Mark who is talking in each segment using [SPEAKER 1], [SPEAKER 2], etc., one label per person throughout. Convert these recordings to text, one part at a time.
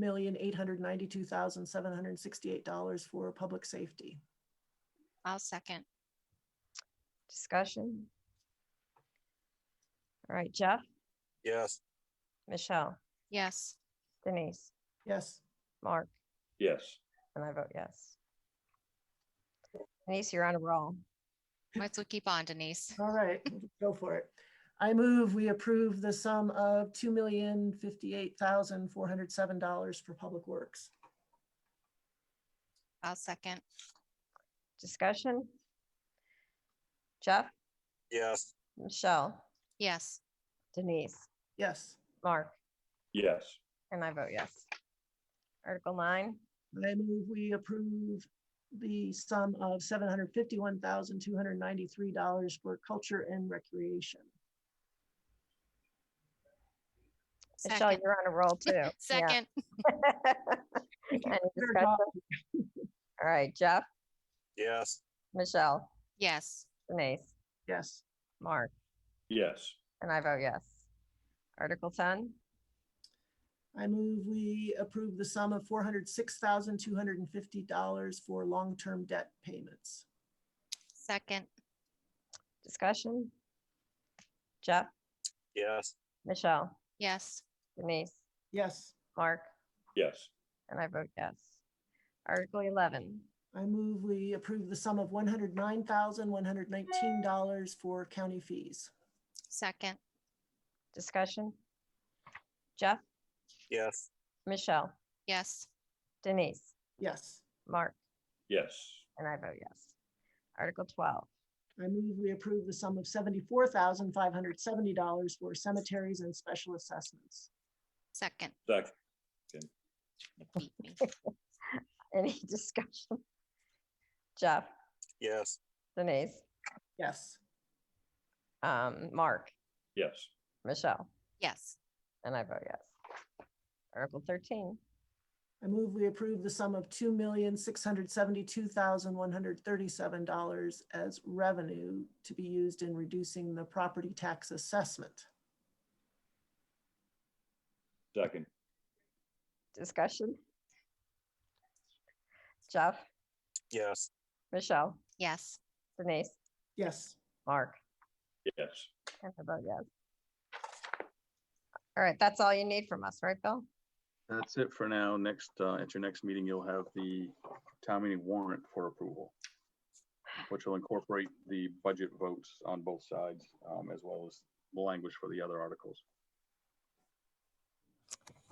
[SPEAKER 1] million, eight hundred ninety-two thousand, seven hundred sixty-eight dollars for public safety.
[SPEAKER 2] I'll second.
[SPEAKER 3] Discussion? All right, Jeff,
[SPEAKER 4] Yes.
[SPEAKER 3] Michelle,
[SPEAKER 2] Yes,
[SPEAKER 3] Denise,
[SPEAKER 1] Yes,
[SPEAKER 3] Mark,
[SPEAKER 4] Yes.
[SPEAKER 3] and I vote yes. Denise, you're on a roll.
[SPEAKER 2] let's keep on Denise.
[SPEAKER 1] all right, go for it. I move we approve the sum of two million, fifty-eight thousand, four hundred seven dollars for public works.
[SPEAKER 2] I'll second.
[SPEAKER 3] Discussion? Jeff,
[SPEAKER 4] Yes.
[SPEAKER 3] Michelle,
[SPEAKER 2] Yes,
[SPEAKER 3] Denise,
[SPEAKER 1] Yes,
[SPEAKER 3] Mark,
[SPEAKER 4] Yes.
[SPEAKER 3] and I vote yes. Article nine,
[SPEAKER 1] I move we approve the sum of seven hundred fifty-one thousand, two hundred ninety-three dollars for culture and recreation.
[SPEAKER 3] Michelle,
[SPEAKER 2] second,
[SPEAKER 3] you're on a roll too. Yeah.
[SPEAKER 2] second,
[SPEAKER 3] Any discussion? All right, Jeff,
[SPEAKER 4] Yes.
[SPEAKER 3] Michelle,
[SPEAKER 2] yes,
[SPEAKER 3] Denise,
[SPEAKER 1] Yes,
[SPEAKER 3] Mark,
[SPEAKER 4] Yes.
[SPEAKER 3] And I vote yes. Article ten,
[SPEAKER 1] I move we approve the sum of four hundred six thousand, two hundred and fifty dollars for long-term debt payments.
[SPEAKER 2] second,
[SPEAKER 3] discussion. Jeff,
[SPEAKER 4] Yes.
[SPEAKER 3] Michelle,
[SPEAKER 2] yes,
[SPEAKER 3] Denise,
[SPEAKER 1] Yes,
[SPEAKER 3] Mark,
[SPEAKER 4] Yes.
[SPEAKER 3] and I vote yes. Article eleven,
[SPEAKER 1] I move we approve the sum of one hundred nine thousand, one hundred nineteen dollars for county fees.
[SPEAKER 2] second,
[SPEAKER 3] discussion. Jeff,
[SPEAKER 4] Yes.
[SPEAKER 3] Michelle,
[SPEAKER 2] yes,
[SPEAKER 3] Denise,
[SPEAKER 1] Yes,
[SPEAKER 3] Mark,
[SPEAKER 4] Yes.
[SPEAKER 3] and I vote yes. Article twelve,
[SPEAKER 1] I move we approve the sum of seventy-four thousand, five hundred seventy dollars for cemeteries and special assessments.
[SPEAKER 2] second.
[SPEAKER 4] Second.
[SPEAKER 2] Beat me.
[SPEAKER 3] any discussion? Jeff,
[SPEAKER 4] Yes.
[SPEAKER 3] Denise,
[SPEAKER 1] Yes,
[SPEAKER 3] um, Mark,
[SPEAKER 4] Yes.
[SPEAKER 3] Michelle,
[SPEAKER 2] Yes,
[SPEAKER 3] and I vote yes. Article thirteen,
[SPEAKER 1] I move we approve the sum of two million, six hundred seventy-two thousand, one hundred thirty-seven dollars as revenue to be used in reducing the property tax assessment.
[SPEAKER 4] Second.
[SPEAKER 3] discussion. Jeff,
[SPEAKER 4] Yes.
[SPEAKER 3] Michelle,
[SPEAKER 2] yes,
[SPEAKER 3] Denise,
[SPEAKER 1] Yes,
[SPEAKER 3] Mark,
[SPEAKER 4] Yes.
[SPEAKER 3] and I vote yes. All right, that's all you need from us, right, Bill?
[SPEAKER 5] That's it for now. Next, uh, at your next meeting, you'll have the town meeting warrant for approval, which will incorporate the budget votes on both sides, um, as well as the language for the other articles.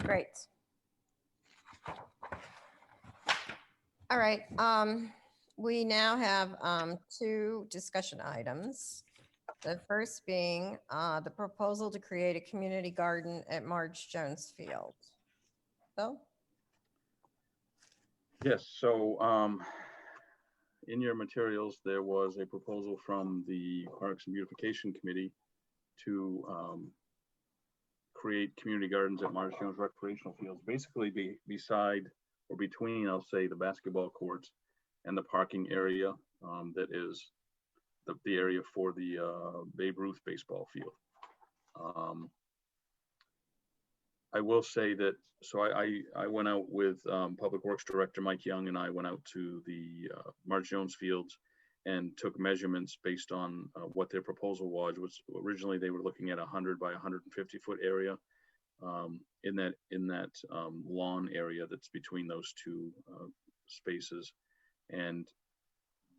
[SPEAKER 3] Great. All right, um, we now have, um, two discussion items. The first being, uh, the proposal to create a community garden at Marge Jones Field. Bill?
[SPEAKER 5] Yes, so um, in your materials, there was a proposal from the Parks and Beautification Committee to um, create community gardens at Marsh Jones recreational fields, basically be beside or between, I'll say, the basketball courts and the parking area um, that is the, the area for the uh, Babe Ruth baseball field. Um, I will say that, so I, I, I went out with um, Public Works Director Mike Young and I went out to the uh, March Jones Fields and took measurements based on uh, what their proposal was, was originally they were looking at a hundred by hundred and fifty foot area um, in that, in that um, lawn area that's between those two uh, spaces. And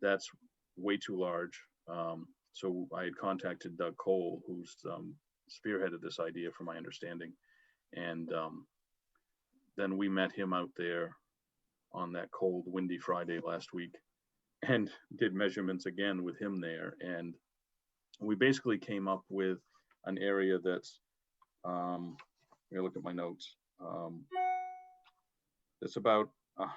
[SPEAKER 5] that's way too large. Um, So I had contacted Doug Cole, who's um, spearheaded this idea from my understanding. And um, then we met him out there on that cold, windy Friday last week and did measurements again with him there. And we basically came up with an area that's, um, let me look at my notes. Um, it's about uh,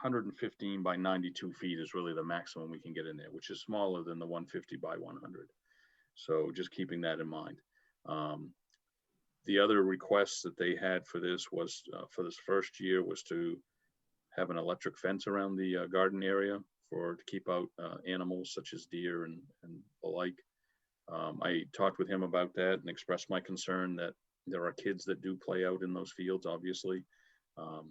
[SPEAKER 5] 115 by 92 feet is really the maximum we can get in there, which is smaller than the 150 by 100. So just keeping that in mind. Um, the other request that they had for this was uh, for this first year was to have an electric fence around the uh, garden area for to keep out uh, animals such as deer and, and the like. Um, I talked with him about that and expressed my concern that there are kids that do play out in those fields, obviously. Um,